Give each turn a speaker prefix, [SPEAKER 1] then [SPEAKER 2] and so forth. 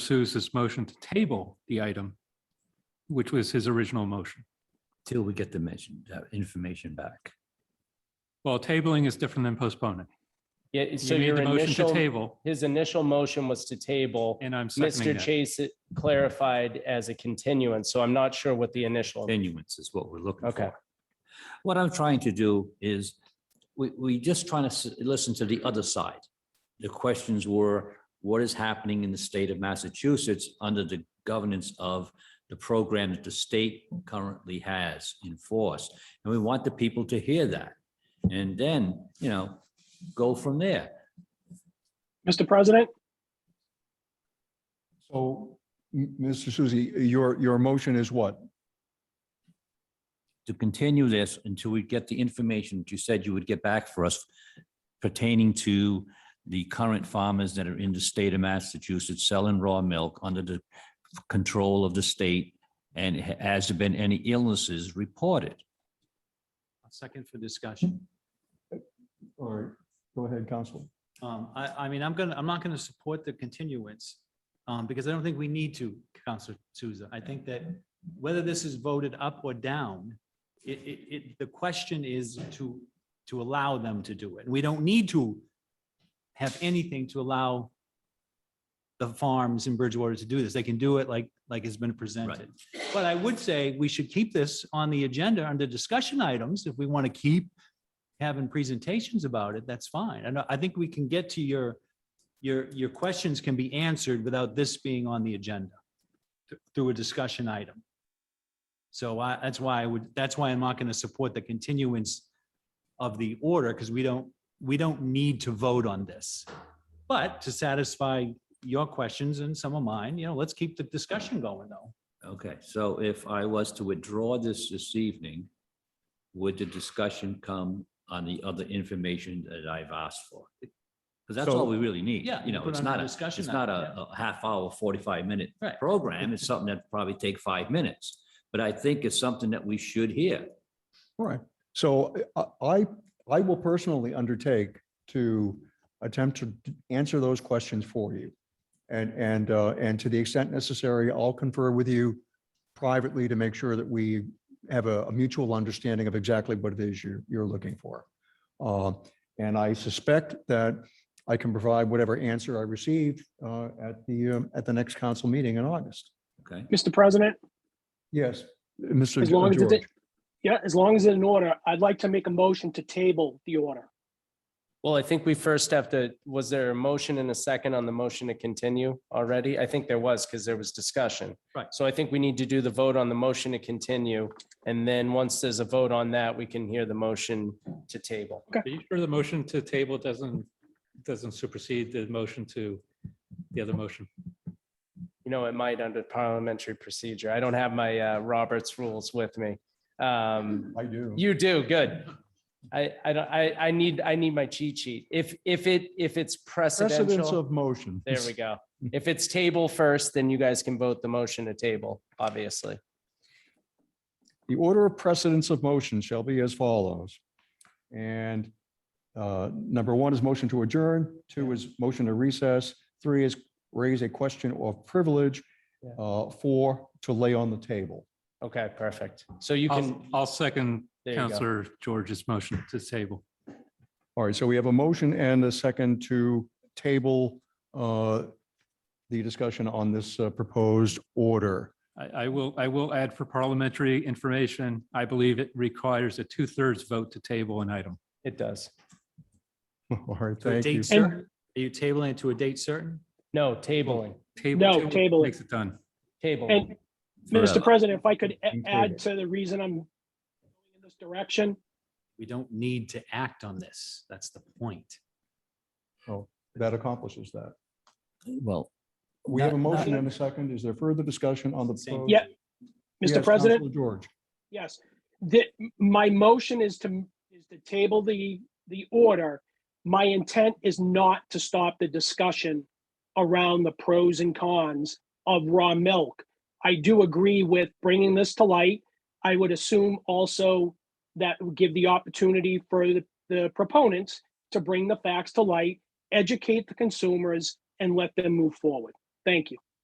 [SPEAKER 1] pursues this motion to table the item, which was his original motion.
[SPEAKER 2] till we get the mention, uh, information back.
[SPEAKER 1] Well, tabling is different than postponing.
[SPEAKER 3] Yeah, it- so
[SPEAKER 1] You made
[SPEAKER 3] your
[SPEAKER 1] the motion to
[SPEAKER 3] initial,
[SPEAKER 1] table,
[SPEAKER 3] his initial motion was to table.
[SPEAKER 1] and I'm
[SPEAKER 3] Mr.
[SPEAKER 1] seconding that.
[SPEAKER 3] Chase it clarified as a continuance, so I'm not sure what the initial.
[SPEAKER 2] Continuance is what we're looking
[SPEAKER 3] Okay.
[SPEAKER 2] for. What I'm trying to do is, we, we just trying to s- listen to the other side. The questions were, what is happening in the state of Massachusetts under the governance of the program that the state currently has enforced? And we want the people to hear that. And then, you know, go from there.
[SPEAKER 4] Mr. President,
[SPEAKER 5] So, M- Mr. Susi, your, your motion is what?
[SPEAKER 2] to continue this until we get the information that you said you would get back for us pertaining to the current farmers that are in the state of Massachusetts selling raw milk under the control of the state? And ha- has there been any illnesses reported?
[SPEAKER 6] Second for discussion.
[SPEAKER 5] All right, go ahead, Counsel.
[SPEAKER 6] Um, I, I mean, I'm gonna, I'm not gonna support the continuance, um, because I don't think we need to, Counselor Souza. I think that whether this is voted up or down, it, it, it, the question is to, to allow them to do it. We don't need to have anything to allow the farms in Bridgewater to do this. They can do it like, like has been presented. But I would say we should keep this on the agenda under discussion items if we want to keep having presentations about it, that's fine. And I- I think we can get to your, your, your questions can be answered without this being on the agenda th- through a discussion item. So I, that's why I would, that's why I'm not going to support the continuance of the order because we don't, we don't need to vote on this. But to satisfy your questions and some of mine, you know, let's keep the discussion going though.
[SPEAKER 2] Okay, so if I was to withdraw this this evening, would the discussion come on the other information that I've asked for? Because that's all we really need.
[SPEAKER 6] Yeah,
[SPEAKER 2] You
[SPEAKER 6] you
[SPEAKER 2] know,
[SPEAKER 6] put
[SPEAKER 2] it's
[SPEAKER 6] on a
[SPEAKER 2] not a,
[SPEAKER 6] discussion
[SPEAKER 2] it's not
[SPEAKER 6] item,
[SPEAKER 2] a a half hour, 45 minute
[SPEAKER 6] Right.
[SPEAKER 2] program. It's something that probably take five minutes. But I think it's something that we should hear.
[SPEAKER 5] All right, so I- I, I will personally undertake to attempt to answer those questions for you. And, and, uh, and to the extent necessary, I'll confer with you privately to make sure that we have a a mutual understanding of exactly what it is you're, you're looking for. Uh, And I suspect that I can provide whatever answer I receive uh, at the, um, at the next council meeting in August.
[SPEAKER 2] Okay,
[SPEAKER 4] Mr. President,
[SPEAKER 5] Yes, Mr.
[SPEAKER 4] As long as it
[SPEAKER 5] George.
[SPEAKER 4] yeah, as long as it's in order, I'd like to make a motion to table the order.
[SPEAKER 3] Well, I think we first have to, was there a motion and a second on the motion to continue already? I think there was because there was discussion.
[SPEAKER 6] Right.
[SPEAKER 3] So I think we need to do the vote on the motion to continue. And then once there's a vote on that, we can hear the motion to table.
[SPEAKER 1] Are you sure the motion to table doesn't, doesn't supersede the motion to the other motion?
[SPEAKER 3] You know, it might under parliamentary procedure. I don't have my uh, Roberts rules with me. Um,
[SPEAKER 5] I do.
[SPEAKER 3] You do, good. I, I don't, I, I need, I need my cheat sheet. If, if it, if it's
[SPEAKER 5] Precedence
[SPEAKER 3] precedential,
[SPEAKER 5] of motion.
[SPEAKER 3] there we go. If it's table first, then you guys can vote the motion to table, obviously.
[SPEAKER 5] The order of precedence of motion shall be as follows. And uh, number one is motion to adjourn, two is motion to recess, three is raise a question of privilege,
[SPEAKER 3] Yeah.
[SPEAKER 5] uh, four to lay on the table.
[SPEAKER 3] Okay, perfect. So you
[SPEAKER 1] I'll,
[SPEAKER 3] can,
[SPEAKER 1] I'll second
[SPEAKER 3] there you go.
[SPEAKER 1] Counselor George's motion to table.
[SPEAKER 5] All right, so we have a motion and a second to table uh, the discussion on this uh, proposed order.
[SPEAKER 1] I, I will, I will add for parliamentary information, I believe it requires a two-thirds vote to table an item.
[SPEAKER 3] It does.
[SPEAKER 5] All right,
[SPEAKER 6] To a
[SPEAKER 5] thank you.
[SPEAKER 6] date certain? Are you tabling it to a date certain?
[SPEAKER 3] No, tabling,
[SPEAKER 1] Table-
[SPEAKER 4] No, table it.
[SPEAKER 1] Makes it done.
[SPEAKER 3] table.
[SPEAKER 4] And
[SPEAKER 2] Forever.
[SPEAKER 4] Mr. President, if I could a-
[SPEAKER 5] Included.
[SPEAKER 4] add to the reason I'm going in this direction,
[SPEAKER 6] We don't need to act on this. That's the point.
[SPEAKER 5] That accomplishes that.
[SPEAKER 2] well,
[SPEAKER 5] We have a
[SPEAKER 6] Not- not-
[SPEAKER 5] motion and a second. Is there further discussion on the?
[SPEAKER 6] Same.
[SPEAKER 5] proposed-
[SPEAKER 4] Yeah,
[SPEAKER 5] Yes,
[SPEAKER 4] Mr.
[SPEAKER 5] Counselor
[SPEAKER 4] President,
[SPEAKER 5] George.
[SPEAKER 4] yes, that my motion is to, is to table the, the order. My intent is not to stop the discussion around the pros and cons of raw milk. I do agree with bringing this to light. I would assume also that would give the opportunity for the, the proponents to bring the facts to light, educate the consumers, and let them move forward. Thank you.